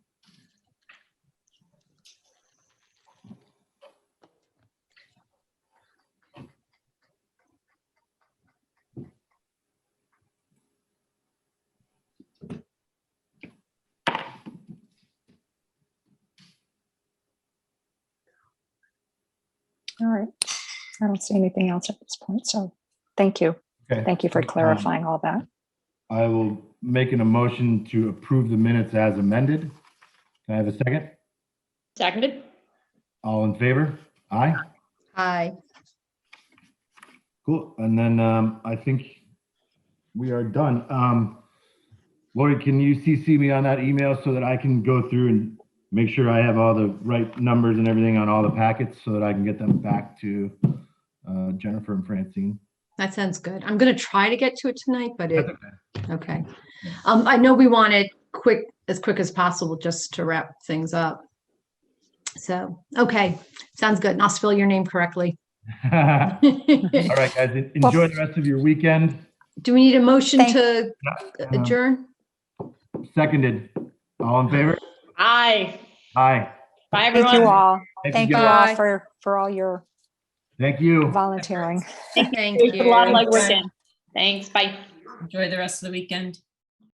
I don't see anything else at this point, so thank you. Okay, Thank you for Um, clarifying all that. I will make an emotion to approve the minutes as amended. Can I have a second? Seconded? All in favor? Aye. Aye. Cool. And then um, I think we are done. Um, Lori, can you CC me on that email so that I can go through and make sure I have all the right numbers and everything on all the packets so that I can get them back to uh, Jennifer and Francine? That sounds good. I'm gonna try to get to it tonight, but it, That's okay. Um, I know we want it quick, as quick as possible, just to wrap things up. So, okay, sounds good. And I'll spell your name correctly. All Do right, guys, en- enjoy the rest of your weekend. we need a motion Thank- to Um, adjourn? Seconded. All in favor? Aye. Aye. Bye, Thank you everyone. all. Thank you guys. all Bye. for, for all your Thank you. volunteering. Thank It's a lot of you. legwork in. Thanks, bye. Enjoy the rest of the weekend.